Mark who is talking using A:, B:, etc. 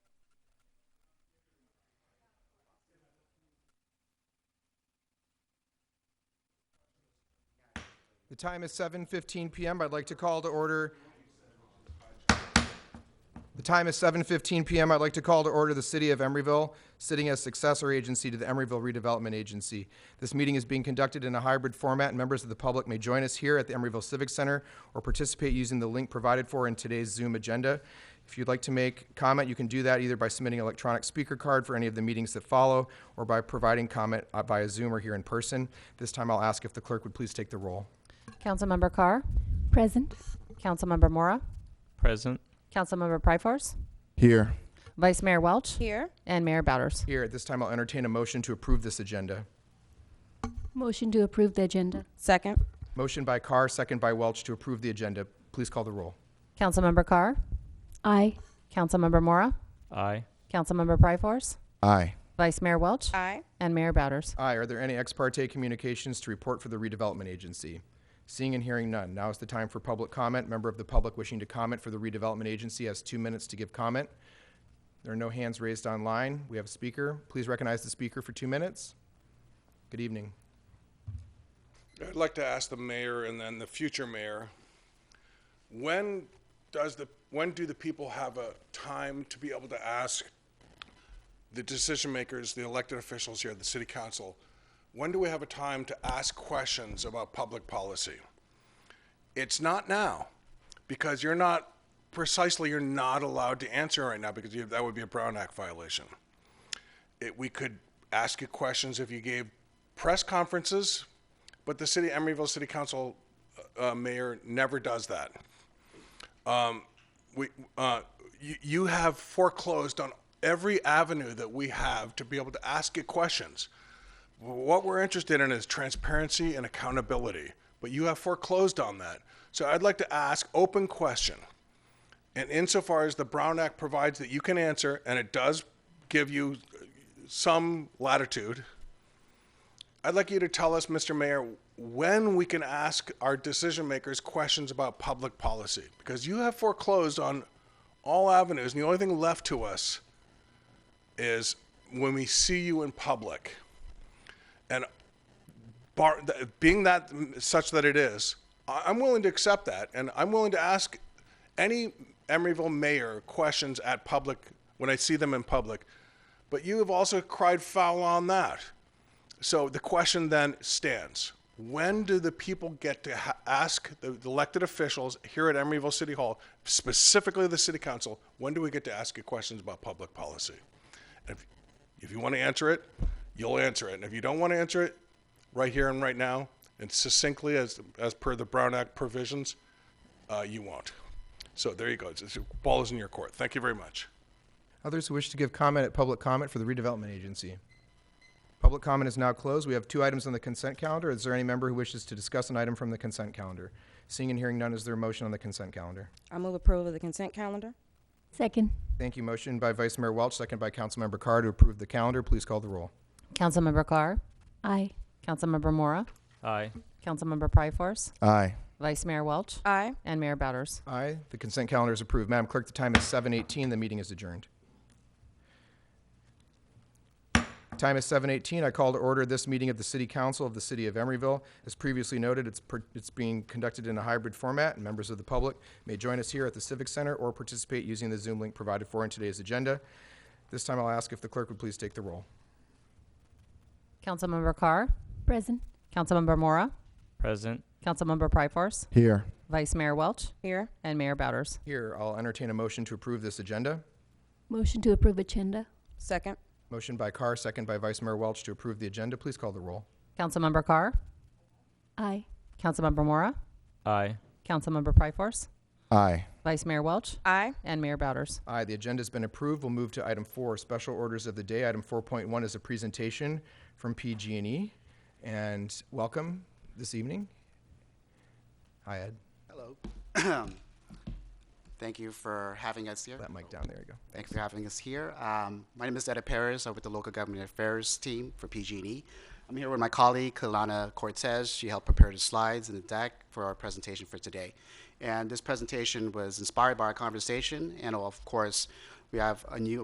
A: time is 7:15 PM. I'd like to call to order. The time is 7:15 PM. I'd like to call to order the City of Emeryville, sitting as successor agency to the Emeryville Redevelopment Agency. This meeting is being conducted in a hybrid format, and members of the public may join us here at the Emeryville Civic Center or participate using the link provided for in today's Zoom agenda. If you'd like to make comment, you can do that either by submitting an electronic speaker card for any of the meetings that follow or by providing comment uh, via Zoom or here in person. This time, I'll ask if the clerk would please take the roll.
B: Councilmember Carr,
C: Present.
B: Councilmember Mora,
D: Present.
B: Councilmember Pryforce,
E: Here.
B: Vice Mayor Welch,
C: Here.
B: and Mayor Bowders.
A: Here, at this time, I'll entertain a motion to approve this agenda.
C: Motion to approve the agenda.
F: Second.
A: Motion by Carr, second by Welch to approve the agenda. Please call the roll.
B: Councilmember Carr,
C: Aye.
B: Councilmember Mora,
D: Aye.
B: Councilmember Pryforce,
E: Aye.
B: Vice Mayor Welch,
F: Aye.
B: and Mayor Bowders.
A: Aye, are there any ex parte communications to report for the redevelopment agency? Seeing and hearing none, now is the time for public comment. Member of the public wishing to comment for the redevelopment agency has two minutes to give comment. There are no hands raised online. We have a speaker. Please recognize the speaker for two minutes. Good evening.
G: I'd like to ask the mayor and then the future mayor, when does the, when do the people have a time to be able to ask the decision makers, the elected officials here, the city council, when do we have a time to ask questions about public policy? It's not now, because you're not, precisely, you're not allowed to answer right now, because you, that would be a Brown Act violation it, we could ask you questions if you gave press conferences, but the city, Emeryville City Council uh, mayor never does that. Um, we, uh, you, you have foreclosed on every avenue that we have to be able to ask you questions. What we're interested in is transparency and accountability, but you have foreclosed on that. So I'd like to ask open question. And insofar as the Brown Act provides that you can answer, and it does give you some latitude, I'd like you to tell us, Mr. Mayor, when we can ask our decision makers questions about public policy. Because you have foreclosed on all avenues, and the only thing left to us is when we see you in public. And bar, th- being that mm, such that it is, I- I'm willing to accept that, and I'm willing to ask any Emeryville mayor questions at public when I see them in public. But you have also cried foul on that. So the question then stands: When do the people get to ha- ask the elected officials here at Emeryville City Hall, specifically the City Council? When do we get to ask you questions about public policy? And if, if you want to answer it, you'll answer it. And if you don't want to answer it, right here and right now, and succinctly as, as per the Brown Act provisions, uh, you won't. So there you go. It's, it's, ball is in your court. Thank you very much.
A: Others who wish to give comment at public comment for the redevelopment agency. Public comment is now closed. We have two items on the consent calendar. Is there any member who wishes to discuss an item from the consent calendar? Seeing and hearing none, is there a motion on the consent calendar?
F: I move approval of the consent calendar.
C: Second.
A: Thank you. Motion by Vice Mayor Welch, second by Councilmember Carr to approve the calendar. Please call the roll.
B: Councilmember Carr,
C: Aye.
B: Councilmember Mora,
D: Aye.
B: Councilmember Pryforce,
E: Aye.
B: Vice Mayor Welch,
F: Aye.
B: and Mayor Bowders.
A: Aye. The consent calendar is approved. Madam Clerk, the time is 7:18. The meeting is adjourned. Time is 7:18. I call to order this meeting of the City Council of the City of Emeryville. As previously noted, it's per- it's being conducted in a hybrid format, and members of the public may join us here at the Civic Center or participate using the Zoom link provided for in today's agenda. This time, I'll ask if the clerk would please take the roll.
B: Councilmember Carr,
C: Present.
B: Councilmember Mora,
D: Present.
B: Councilmember Pryforce,
E: Here.
B: Vice Mayor Welch,
F: Here.
B: and Mayor Bowders.
A: Here, I'll entertain a motion to approve this agenda.
C: Motion to approve agenda.
F: Second.
A: Motion by Carr, second by Vice Mayor Welch to approve the agenda. Please call the roll.
B: Councilmember Carr,
C: Aye.
B: Councilmember Mora,
D: Aye.
B: Councilmember Pryforce,
E: Aye.
B: Vice Mayor Welch,
F: Aye.
B: and Mayor Bowders.
A: Aye, the agenda's been approved. We'll move to item four, special orders of the day. Item 4.1 is a presentation from PG&E. E. And welcome this evening. Hi, Ed.
H: Hello. Thank you for having us here.
A: That mic down. There you go.
H: Thank you for having us here. Um, my name is Etta Perez. I'm with the local government affairs team for PG&E. E. I'm here with my colleague, Kalana Cortez. She helped prepare the slides and the deck for our presentation for today. And this presentation was inspired by our conversation, and of course, we have a new